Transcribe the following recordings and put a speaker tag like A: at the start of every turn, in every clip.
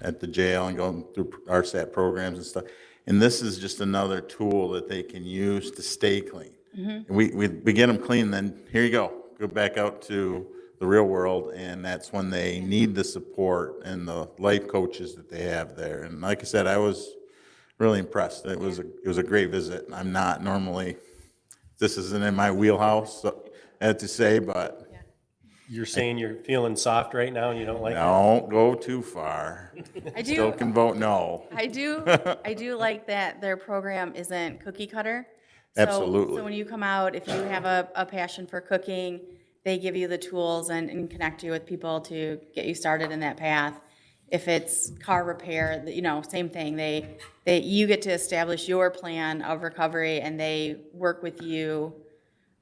A: at the jail and going through RSAT programs and stuff. And this is just another tool that they can use to stay clean.
B: Mm-hmm.
A: And We, we, we get them clean, then here you go, go back out to the real world, and that's when they need the support and the life coaches that they have there. And like I said, I was really impressed. It was, a it was a great visit. I'm not normally, this isn't in my wheelhouse, so, I have to say, but
C: You're saying you're feeling soft right now and you don't like it?
A: don't go too far.
B: I
A: Still
B: do,
A: can vote no.
B: I do, I do like that their program isn't cookie cutter. So-
A: Absolutely.
B: So when you come out, if you have a, a passion for cooking, they give you the tools and, and connect you with people to get you started in that path. If it's car repair, you know, same thing, they, they, you get to establish your plan of recovery and they work with you.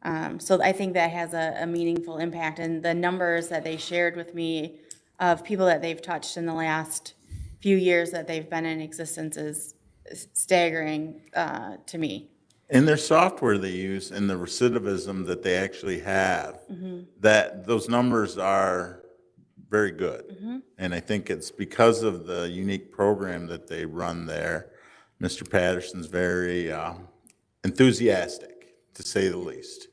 B: Um, so I think that has a, a meaningful impact and the numbers that they shared with me of people that they've touched in the last few years that they've been in existence is staggering, uh, to me.
A: And their software they use and the recidivism that they actually have, that those numbers are very good. And I think it's because of the unique program that they run there. Mr. Patterson's very uh, enthusiastic, to say the least.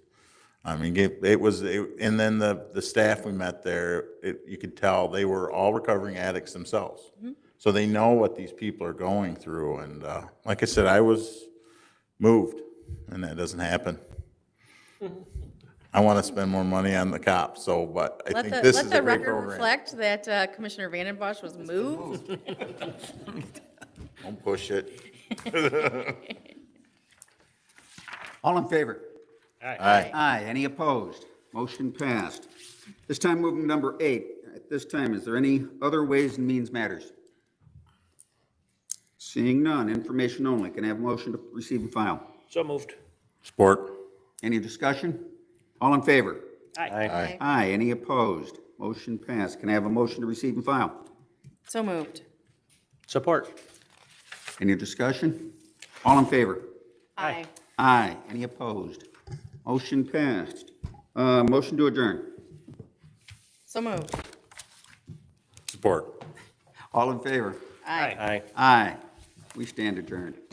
A: I mean, it, it was, it, and then the, the staff we met there, it, you could tell they were all recovering addicts themselves.
B: Mm-hmm.
A: So they know what these people are going through. And uh, like I said, I was moved, and that doesn't happen. I want to spend more money on the cops, so, but I
B: Let
A: think
B: the,
A: this
B: let
A: is a
B: the
A: great
B: record
A: program.
B: reflect that uh, Commissioner Vanden Bosch was moved.
A: Don't push it.
D: All in favor?
A: Aye.
D: Aye. Any opposed? Motion passed. This time, moving to number eight. At this time, is there any other Ways and Means Matters? Seeing none, information only. Can I have a motion to receive and file?
E: So moved.
A: Sport.
D: Any discussion? All in favor?
C: Aye.
D: Aye. Any opposed? Motion passed. Can I have a motion to receive and file?
B: So moved.
C: Support.
D: Any discussion? All in favor?
B: Aye.
D: Aye. Any opposed? Motion passed. Uh, motion to adjourn.
B: So moved.
A: Support.
D: All in favor?
B: Aye.
C: Aye.
D: Aye. We stand adjourned.